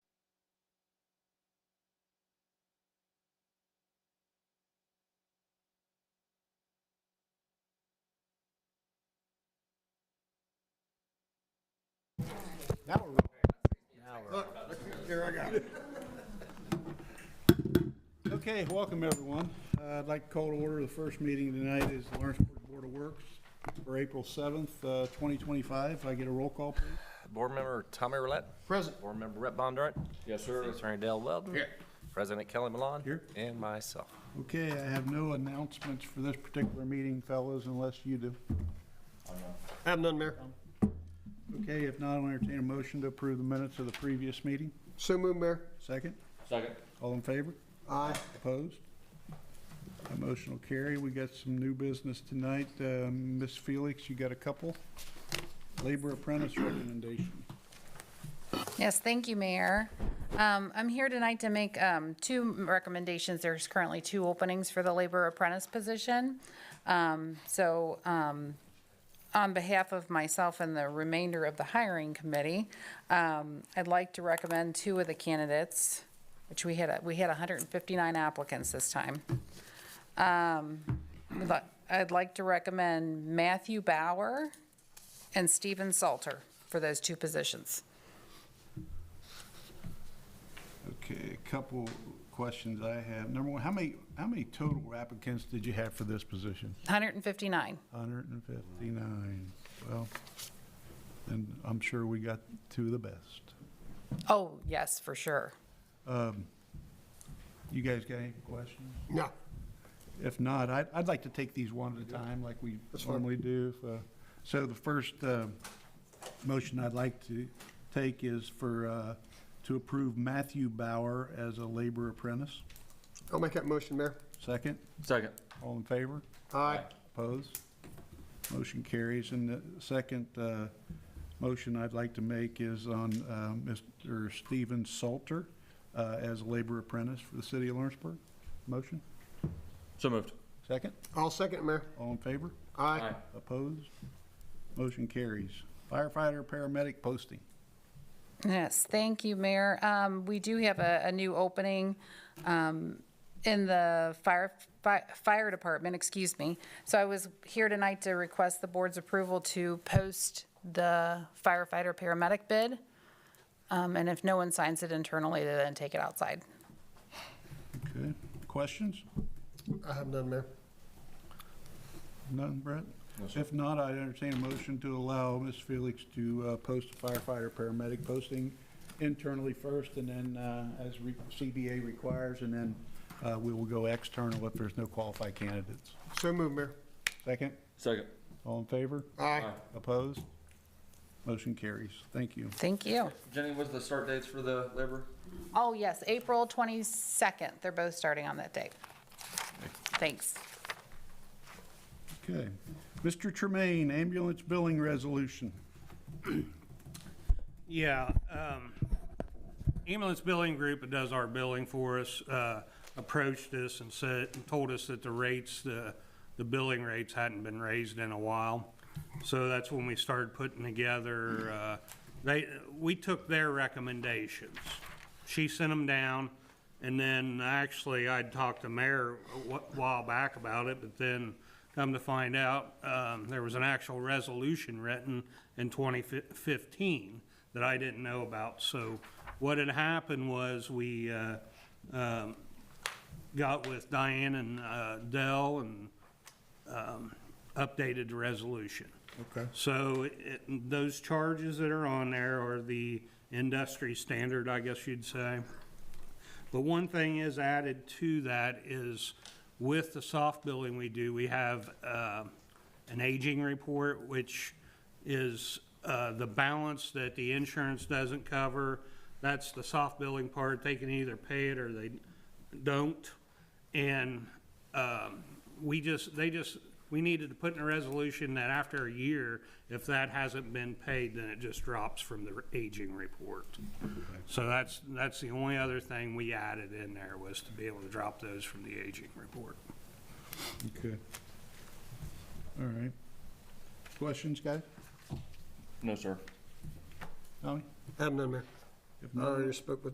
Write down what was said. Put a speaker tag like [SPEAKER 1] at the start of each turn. [SPEAKER 1] Now we're. Look, look, here I got it. Okay, welcome everyone. Uh, I'd like to call to order, the first meeting tonight is the Lawrenceburg Board of Works for April 7th, uh, 2025. If I get a roll call, please.
[SPEAKER 2] Board Member Tommy Roulette.
[SPEAKER 1] Present.
[SPEAKER 2] Board Member Rep Bondurant. Yes, sir. Attorney Dale Weldon.
[SPEAKER 1] Here.
[SPEAKER 2] President Kelly Malone.
[SPEAKER 1] Here.
[SPEAKER 2] And myself.
[SPEAKER 1] Okay, I have no announcements for this particular meeting, fellas, unless you do.
[SPEAKER 3] Have none, Mayor.
[SPEAKER 1] Okay, if not, I'll entertain a motion to approve the minutes of the previous meeting.
[SPEAKER 3] So moved, Mayor.
[SPEAKER 1] Second,
[SPEAKER 4] Second.
[SPEAKER 1] all in favor?
[SPEAKER 3] Aye.
[SPEAKER 1] Opposed? That motion will carry. We got some new business tonight. Um, Ms. Felix, you got a couple? Labor apprentice recommendation.
[SPEAKER 5] Yes, thank you, Mayor. Um, I'm here tonight to make um, two recommendations. There's currently two openings for the labor apprentice position. Um, So um, on behalf of myself and the remainder of the hiring committee, um, I'd like to recommend two of the candidates, which we had, uh, we had 159 applicants this time. Um, we'd li- I'd like to recommend Matthew Bauer and Stephen Salter for those two positions.
[SPEAKER 1] Okay, a couple questions I have. Number one, how many, how many total applicants did you have for this position?
[SPEAKER 5] 159.
[SPEAKER 1] Hundred and fifty-nine. Well, and I'm sure we got two of the best.
[SPEAKER 5] Oh, yes, for sure.
[SPEAKER 1] You guys got any questions?
[SPEAKER 3] No.
[SPEAKER 1] If not, I'd, I'd like to take these one at a time, like we normally do. If, uh, So the first uh, motion I'd like to take is for, uh, to approve Matthew Bauer as a labor apprentice.
[SPEAKER 3] I'll make that motion, Mayor.
[SPEAKER 1] Second,
[SPEAKER 4] Second.
[SPEAKER 1] all in favor?
[SPEAKER 3] Aye.
[SPEAKER 1] Opposed? Motion carries. And the second uh, motion I'd like to make is on uh, Mr. Stephen Salter uh, as a labor apprentice for the city of Lawrenceburg. Motion?
[SPEAKER 4] So moved.
[SPEAKER 1] Second?
[SPEAKER 3] I'll second, Mayor.
[SPEAKER 1] All in favor?
[SPEAKER 3] Aye.
[SPEAKER 1] Opposed? Motion carries. Firefighter, paramedic posting.
[SPEAKER 5] Yes, thank you, Mayor. Um, We do have a, a new opening um, in the fire, fi- fire department, excuse me. So I was here tonight to request the board's approval to post the firefighter paramedic bid. Um, And if no one signs it internally, to then take it outside.
[SPEAKER 1] Okay, questions?
[SPEAKER 3] I have none, Mayor.
[SPEAKER 1] None, Brett? If not, I entertain a motion to allow Ms. Felix to uh, post a firefighter, paramedic posting internally first, and then uh, as re- CBA requires, and then uh, we will go external if there's no qualified candidates.
[SPEAKER 3] So moved, Mayor.
[SPEAKER 1] Second,
[SPEAKER 4] Second.
[SPEAKER 1] all in favor?
[SPEAKER 3] Aye.
[SPEAKER 1] Opposed? Motion carries. Thank you.
[SPEAKER 5] Thank you.
[SPEAKER 4] Jenny, what's the start dates for the labor?
[SPEAKER 5] Oh, yes, April 22nd. They're both starting on that date. Thanks.
[SPEAKER 1] Okay. Mr. Tremaine, ambulance billing resolution.
[SPEAKER 6] Yeah, um, ambulance billing group that does our billing for us, uh, approached us and said, and told us that the rates, the, the billing rates hadn't been raised in a while. So that's when we started putting together, uh, they, we took their recommendations. She sent them down, and then actually I'd talked to Mayor a wh- while back about it, but then come to find out, um, there was an actual resolution written in 2015 that I didn't know about. So what had happened was we, uh, um, got with Diane and, uh, Dell and, um, updated the resolution.
[SPEAKER 1] Okay.
[SPEAKER 6] So it, those charges that are on there are the industry standard, I guess you'd say. But one thing is added to that is with the soft billing we do, we have uh, an aging report, which is uh, the balance that the insurance doesn't cover. That's the soft billing part. They can either pay it or they don't. And um, we just, they just, we needed to put in a resolution that after a year, if that hasn't been paid, then it just drops from the aging report. So that's, that's the only other thing we added in there was to be able to drop those from the aging report.
[SPEAKER 1] Okay. All right. Questions, guys?
[SPEAKER 4] No, sir.
[SPEAKER 1] Tommy?
[SPEAKER 3] Have none, Mayor.
[SPEAKER 1] If
[SPEAKER 3] I
[SPEAKER 1] not,
[SPEAKER 3] Uh, already spoke with